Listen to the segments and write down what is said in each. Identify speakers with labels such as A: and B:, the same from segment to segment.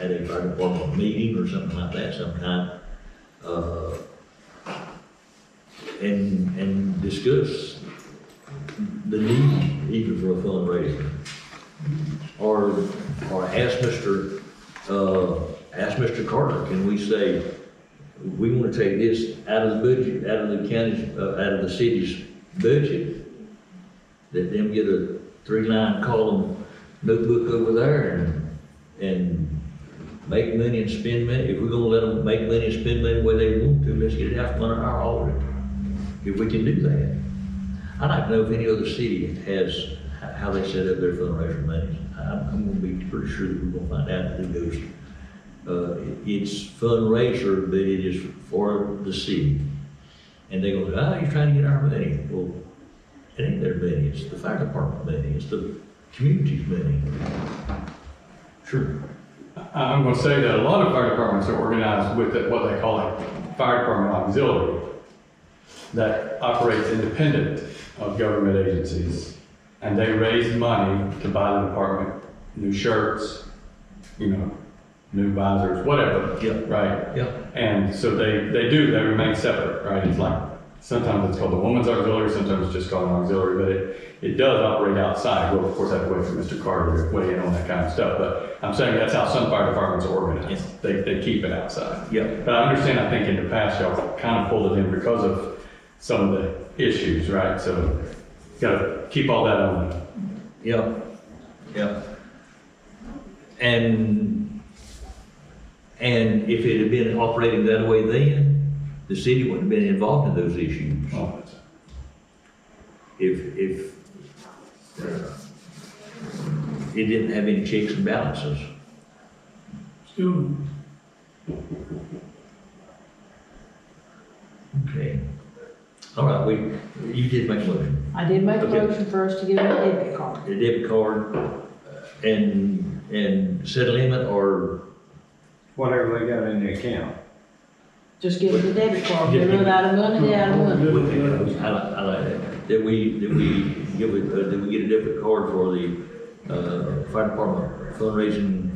A: at a fire department meeting or something like that sometime, uh, and, and discuss the need even for a fundraiser. Or, or ask Mr., uh, ask Mr. Carter, can we say, we want to take this out of the budget, out of the county's, uh, out of the city's budget? Let them get a three-line column notebook over there and, and make money and spend money. If we're gonna let them make money and spend money the way they want to, let's get it out from under our audit, if we can do that. I'd like to know if any other city has, h- how they set up their fundraiser money. I'm, I'm gonna be pretty sure that we're gonna find out who goes. Uh, it- it's fundraiser, but it is for the city. And they go, oh, you're trying to get our money. Well, it ain't their money, it's the fire department money, it's the community's money.
B: Sure. I- Uh, I'm going to say that a lot of fire departments are organized with the- what they call a fire department auxiliary that operates independent of government agencies. And they raise money to buy the department new shirts, you know, new visors, whatever.
A: Yeah.
B: Right?
A: Yeah,
B: And so they, they do, they remain separate, right? It's like, sometimes it's called the woman's auxiliary, sometimes it's just called an auxiliary, but it, it does operate outside. We'll of course have to wait for Mr. Carter to weigh in on that kind of stuff, but I'm saying that's how some fire departments are
A: Yes.
B: organized. They, they keep it outside.
A: yeah,
B: But I understand, I think in the past, y'all kind of pulled it in because of some of the issues, right? So gotta keep all that on.
A: yeah, yeah. And, and if it had been operating that way then, the city wouldn't have been involved in those issues.
B: on it.
A: if, if uh, it didn't have any checks and balances.
C: Still,
A: Okay. All right, we, you did make a motion.
D: I did make a
A: Okay.
D: motion for us to give him a debit card.
A: The debit card uh, and, and set a limit or,
E: whatever they got in the account.
D: Just give him the debit card.
A: Yeah.
D: We run out of money, they out of
A: I
D: money.
A: like, I like that. That we, that we give it, uh, that we get a debit card for the, uh, fire department fundraising,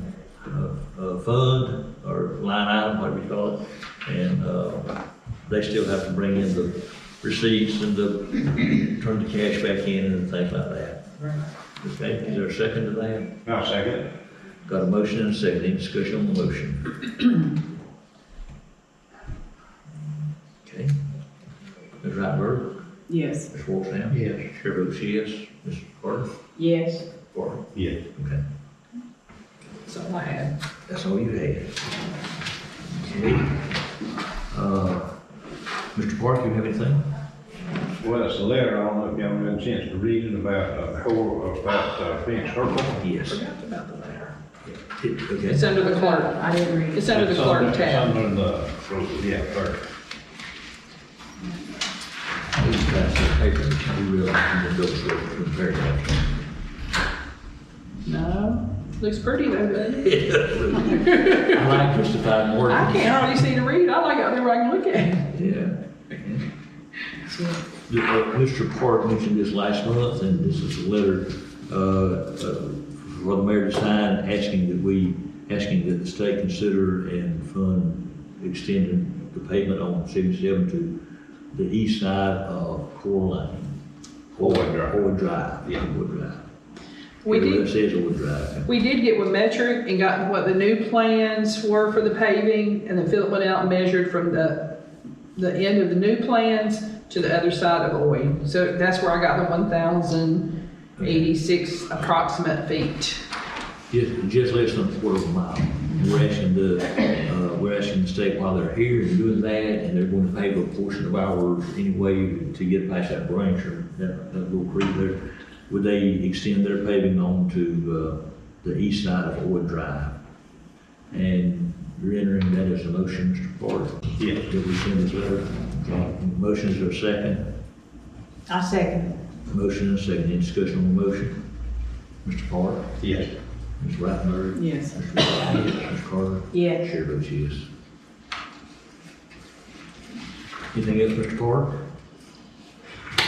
A: uh, uh, fund or line item, whatever you call it. And, uh, they still have to bring in the receipts and the, turn the cash back in and things like that. Okay, is there a second to that?
E: I'll second it.
A: Got a motion and a second, any discussion on the motion? Okay. Ms. Rattler,
D: Yes.
A: Ms. Wolfson? Yes. Chair votes yes, Ms. Carter?
D: Yes.
A: Carter.
E: Yeah.
A: Okay,
D: That's all I had.
A: that's all you had. Okay. Uh, Mr. Park, you have anything?
E: Well, it's a letter, I don't know if y'all had a chance to read it about, uh, whole, about, uh, Phoenix Circle.
A: Yes.
F: about the letter.
A: It- Okay,
F: It's under the clerk,
D: I didn't read it.
F: it's under the clerk
E: It's
F: tab.
E: under the, yeah, clerk.
A: please pass the paper, we will, and we'll go through it very much.
F: No, looks pretty though, doesn't it?
A: I like justified more.
F: I can't hardly see to read, I like it out there where I can look at it.
A: Yeah. The- uh, Mr. Park mentioned this last month, and this is a letter uh, uh, for the mayor to sign, asking that we, asking that the state consider and fund extending the pavement on 77 to the east side of Coraline.
E: Hoyt Drive.
A: Hoyt Drive. Yeah. Hoyt Drive.
F: We
A: Yeah,
F: did-
A: It says Hoyt Drive.
F: We did get with Metric and got what the new plans were for the paving, and then Philip went out and measured from the, the end of the new plans to the other side of Oy. So that's where I got the one thousand eighty-six approximate feet.
A: Just, just less than a quarter of a mile. And we're asking the, uh, we're asking the state while they're here and doing that, and they're going to pave a portion of ours anyway to get past that branch or that, that little creek there. Would they extend their paving on to, uh, the east side of Oil Drive? And you're entering that as a motion, Mr. Porter?
E: Yeah.
A: That we send this letter? Motion is there a second?
D: I second it.
A: Motion and a second. Any discussion on the motion? Mr. Porter?
E: Yes.
A: Ms. Rattner?
D: Yes.
A: Mr. Whitfield, Mr. Carter?
D: Yes.
A: Chair votes yes. Anything else, Mr. Carter?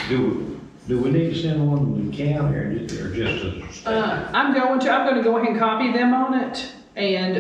E: Do, do we need to send one to the county or just, or just to the state?
F: Uh, I'm going to, I'm gonna go ahead and copy them on it, and